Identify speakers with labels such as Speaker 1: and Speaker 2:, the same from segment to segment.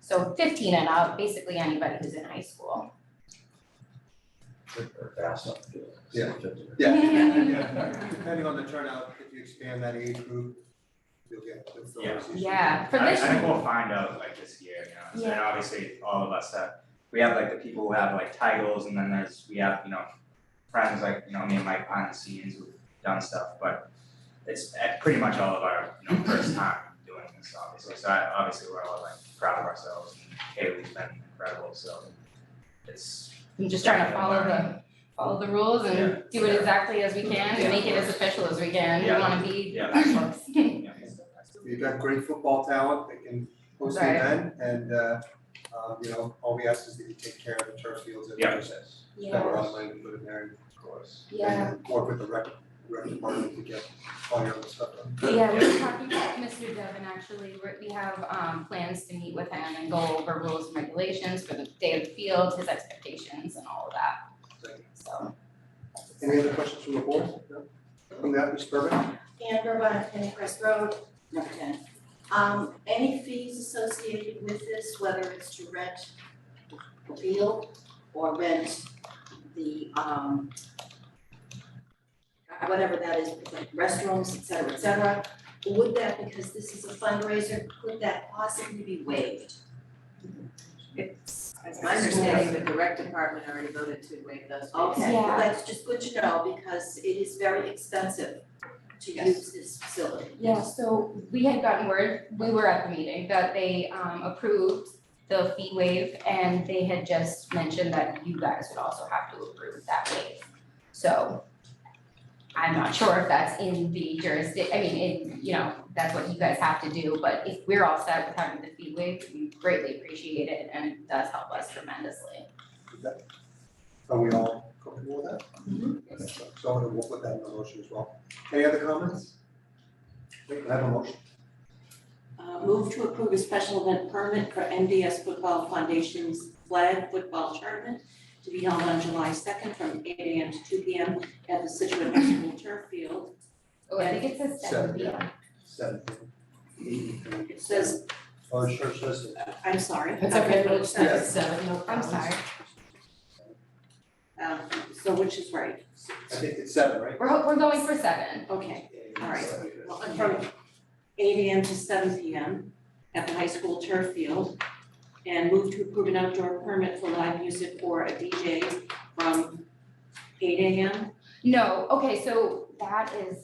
Speaker 1: So fifteen and up, basically anybody who's in high school.
Speaker 2: Or fast enough to do it.
Speaker 3: Yeah. Depending on the turnout, if you expand that age group, you'll get the conversation.
Speaker 1: Yeah, for
Speaker 4: I I
Speaker 1: this,
Speaker 4: think we'll find out like this year, you know, so and obviously all of us that, we have like the people who have like titles and then there's, we have, you know, friends like, you know, me and Mike behind the scenes who've done stuff, but it's uh, pretty much all of our, you know, first time doing this, obviously, so I, obviously we're all like proud of ourselves and Haley's been incredible, so it's,
Speaker 1: I'm just trying to follow the, follow the rules and do it exactly as we can and make it as official as we can. We wanna be
Speaker 4: Yeah.
Speaker 1: excellent.
Speaker 4: you know, it's-
Speaker 3: You've got great football talent that can host the
Speaker 1: Right.
Speaker 3: event and, uh, um, you know, all we ask is that you take care of the turf fields and
Speaker 4: Yeah.
Speaker 3: process. That we're online and put in there,
Speaker 4: of course.
Speaker 1: Yeah,
Speaker 3: and work with the rec, rec department to get all your other stuff done.
Speaker 1: yeah, we were talking to Mr. Devon, actually, We're- we have um plans to meet with him and go over rules and regulations for the day of the field, his expectations and all of that,
Speaker 3: Thank you.
Speaker 1: so.
Speaker 3: Any other questions from the board? No? From that, Ms. Burbank?
Speaker 5: Amber, one ten Crest Road.
Speaker 1: Okay.
Speaker 5: Um, any fees associated with this, whether it's to rent the field or rent the, um, uh, whatever that is, like restrooms, et cetera, et cetera, would that, because this is a fundraiser, could that possibly be waived?
Speaker 1: It's,
Speaker 5: That's
Speaker 6: My understanding, the direct department already voted to waive those fees.
Speaker 5: Okay,
Speaker 1: Yeah.
Speaker 5: well, that's just good to know because it is very expensive to
Speaker 6: Yes.
Speaker 5: use this facility.
Speaker 1: Yeah, so we had gotten word, we were at the meeting, that they um approved the fee waive and they had just mentioned that you guys would also have to approve that waive. So I'm not sure if that's in the jurisdiction, I mean, in, you know, that's what you guys have to do, but if we're all set with having the fee waived, we greatly appreciate it and it does help us tremendously.
Speaker 3: Is that- Are we all comfortable with that?
Speaker 5: Mhm.
Speaker 3: So- So I'm gonna work with that in the motion as well. Any other comments? Wait, I have a motion.
Speaker 6: Uh, move to approve a special event permit for NDS Football Foundation's flag football tournament to be held on July second from eight AM to two PM at the Situate High School turf field.
Speaker 1: Oh, I think it says seven,
Speaker 3: Seven,
Speaker 1: yeah.
Speaker 3: yeah. Seventeen.
Speaker 6: It says,
Speaker 3: Oh, sure, sure, sure.
Speaker 6: I'm sorry.
Speaker 7: It's okay, but it's
Speaker 3: Yeah.
Speaker 7: seven, no
Speaker 1: I'm
Speaker 7: problem.
Speaker 1: sorry,
Speaker 6: Um, so which is right?
Speaker 3: I think it's seven, right?
Speaker 1: we're ho- we're going for seven.
Speaker 6: Okay, all right.
Speaker 3: Seven.
Speaker 6: Well, From eight AM to seven PM at the high school turf field. And move to approve an outdoor permit for live music or a DJ from eight AM.
Speaker 1: No, okay, so that is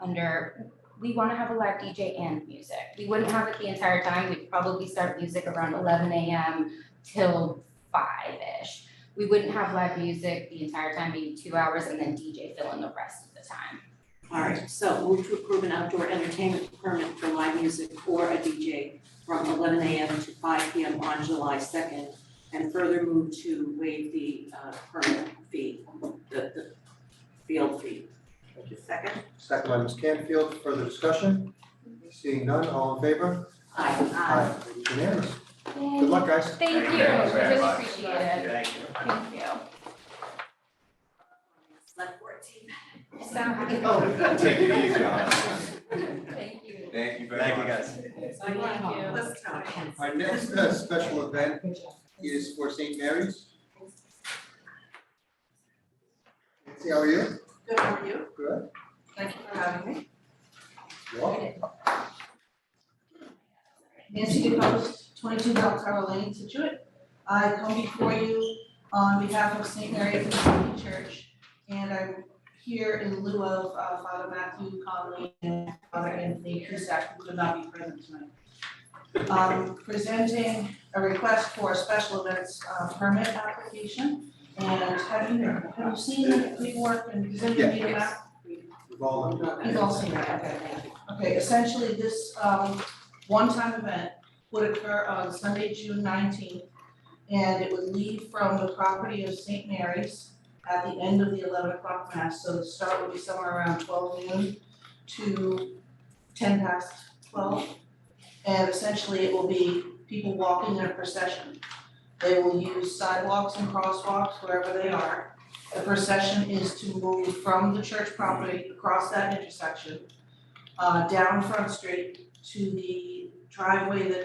Speaker 1: under, we wanna have a live DJ and music. We wouldn't have it the entire time, we'd probably start music around eleven AM till five-ish. We wouldn't have live music the entire time, maybe two hours, and then DJ fill in the rest of the time.
Speaker 6: All right, so move to approve an outdoor entertainment permit for live music or a DJ from eleven AM to five PM on July second. And further move to waive the uh permit fee, the the field fee.
Speaker 3: Thank you.
Speaker 6: Second?
Speaker 3: Second by Ms. Canfield, further discussion? Seeing none, all in favor?
Speaker 6: Aye.
Speaker 3: It is unanimous. Good luck, guys.
Speaker 1: Thank you,
Speaker 4: Thank you very
Speaker 1: really
Speaker 4: much.
Speaker 1: appreciate it,
Speaker 4: Thank you.
Speaker 1: thank you.
Speaker 5: Select board team.
Speaker 1: So happy.
Speaker 3: Oh,
Speaker 4: Take it easy on us.
Speaker 1: Thank you.
Speaker 4: Thank you very much. Thank you guys.
Speaker 7: Thank you.
Speaker 5: Let's go.
Speaker 3: Our next uh, special event is for St. Mary's. Nancy, how are you?
Speaker 6: Good, how are you?
Speaker 3: Good.
Speaker 6: Thank you for having me.
Speaker 3: You're welcome.
Speaker 8: Nancy DePost, twenty-two Belltower Lane, Situate. I come before you on behalf of St. Mary's Anglican Church, and I'm here in lieu of uh, Father Matthew Conley and Father Anthony Cusack, who could not be present tonight. Um, presenting a request for a special events uh, permit application, and have you, have you seen the paperwork and presented me the map?
Speaker 3: We've all learned.
Speaker 8: You've all seen that, okay, Okay, essentially, this um one-time event would occur on Sunday, June nineteenth. And it would leave from the property of Saint Mary's at the end of the eleven o'clock mass, so the start would be somewhere around twelve noon to ten past twelve. And essentially, it will be people walking in a procession. They will use sidewalks and crosswalks wherever they are. The procession is to move from the church property across that intersection, uh, down Front Street to the driveway that